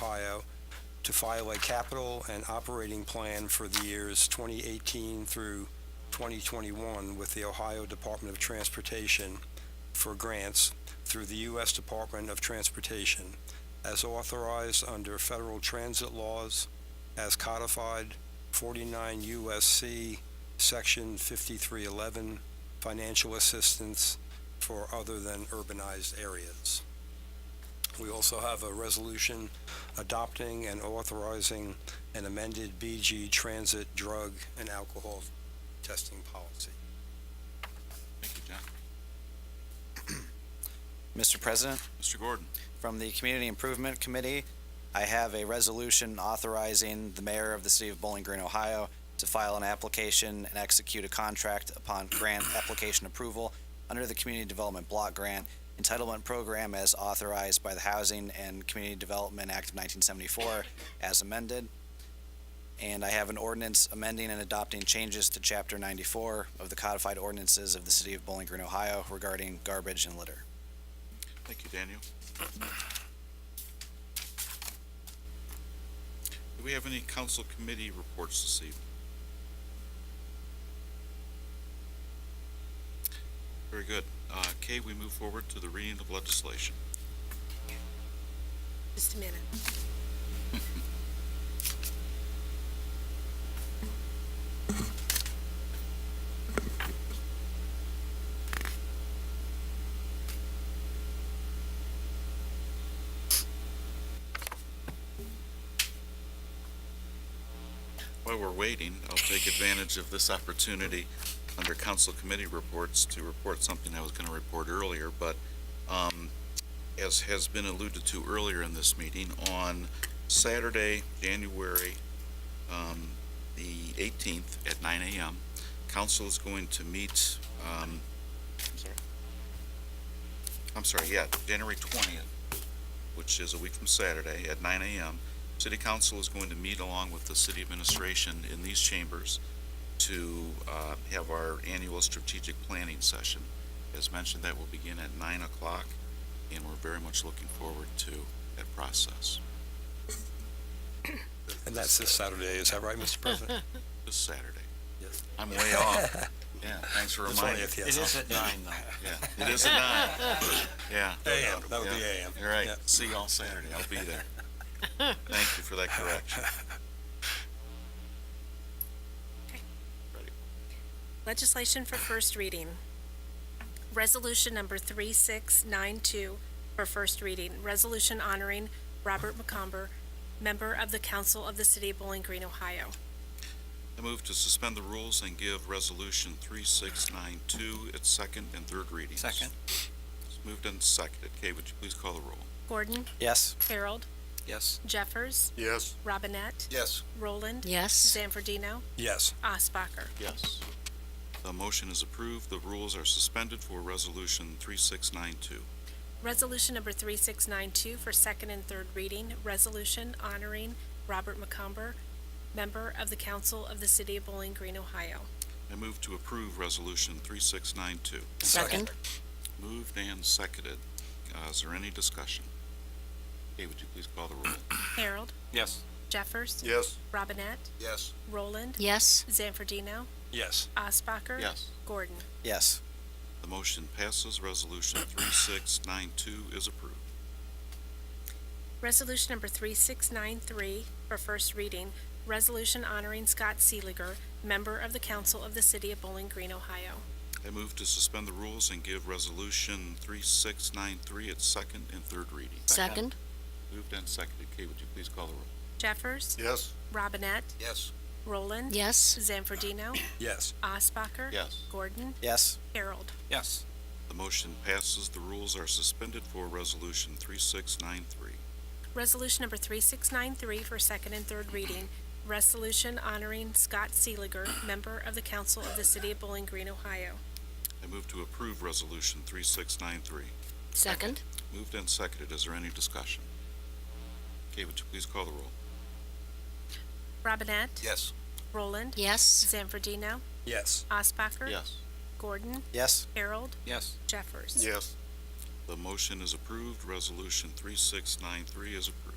Ohio, to file a capital and operating plan for the years 2018 through 2021 with the Ohio Department of Transportation for grants through the U.S. Department of Transportation, as authorized under federal transit laws, as codified 49 U.S.C. Section 5311, financial assistance for other than urbanized areas. We also have a resolution adopting and authorizing an amended BG Transit Drug and Alcohol Testing Policy. Thank you, John. Mr. President, Mr. Gordon, from the Community Improvement Committee, I have a resolution authorizing the mayor of the city of Bowling Green, Ohio, to file an application and execute a contract upon grant application approval under the Community Development Block Grant Entitlement Program as authorized by the Housing and Community Development Act of 1974 as amended. And I have an ordinance amending and adopting changes to Chapter 94 of the codified ordinances of the city of Bowling Green, Ohio regarding garbage and litter. thank you, Daniel. Do we have any council committee reports this evening? Very good. Uh, Kay, we move forward to the reading of legislation. Just a minute. While we're waiting, I'll take advantage of this opportunity under council committee reports to report something I was going to report earlier, but um, as has been alluded to earlier in this meeting, on Saturday, January um, the 18th at 9 a.m., council is going to meet, um, I'm sorry, I'm sorry, yeah, January 20th, which is a week from Saturday, at 9 a.m. City Council is going to meet along with the city administration in these chambers to uh, have our annual strategic planning session. As mentioned, that will begin at nine o'clock, and we're very much looking forward to that process And that's this Saturday, is that right, Mr. President? this Saturday. Yes. I'm way off. Yeah, thanks for The reminding. 20th, yes. at nine, though. Yeah, it is at nine. Yeah. AM, that would be Yeah. AM. All right, Yeah. see you all Saturday, I'll be there. Thank you for that correction. Legislation for first reading. Resolution number 3692 for first reading. Resolution honoring Robert McComber, member of the Council of the City of Bowling Green, Ohio. I move to suspend the rules and give Resolution 3692 its second and third readings. Second. It's moved and seconded. Kay, would you please call the roll? Gordon, Yes? Harold, Yes. Jeffers, Yes. Robinette, Yes. Roland, Yes. Zanfordino, Yes, Osbacher. Yes. The motion is approved. The rules are suspended for Resolution 3692. Resolution number 3692 for second and third reading. Resolution honoring Robert McComber, member of the Council of the City of Bowling Green, Ohio. I move to approve Resolution 3692. Second. Moved and seconded. Uh, Is there any discussion? Kay, would you please call the roll? Harold, Yes. Jeffers, Yes. Robinette, Yes. Roland, Yes. Zanfordino, yes, Osbacher. Yes. Gordon. Yes. The motion passes. Resolution 3692 is approved. Resolution number 3693 for first reading, resolution honoring Scott Seeliger, member of the council of the city of Bowling Green, Ohio. I move to suspend the rules and give Resolution 3693 its second and third reading. Second. Moved and seconded. Kay, would you please call the roll? Jeffers, Yes. Robinette, Yes. Roland. Yes. Zanfordino, yes, Osbacher. Yes. Gordon, Yes. Harold. Yes. The motion passes. The rules are suspended for Resolution 3693. Resolution number 3693 for second and third reading, resolution honoring Scott Seeliger, member of the council of the city of Bowling Green, Ohio. I move to approve Resolution 3693. Second. Moved and seconded. Is there any discussion? Kay, would you please call the roll? Robinette, Yes. Roland, Yes. Zanfordino, yes, Osbacher. Gordon, Yes. Harold, Yes. Jeffers. Yes. The motion is approved. Resolution 3693 is approved.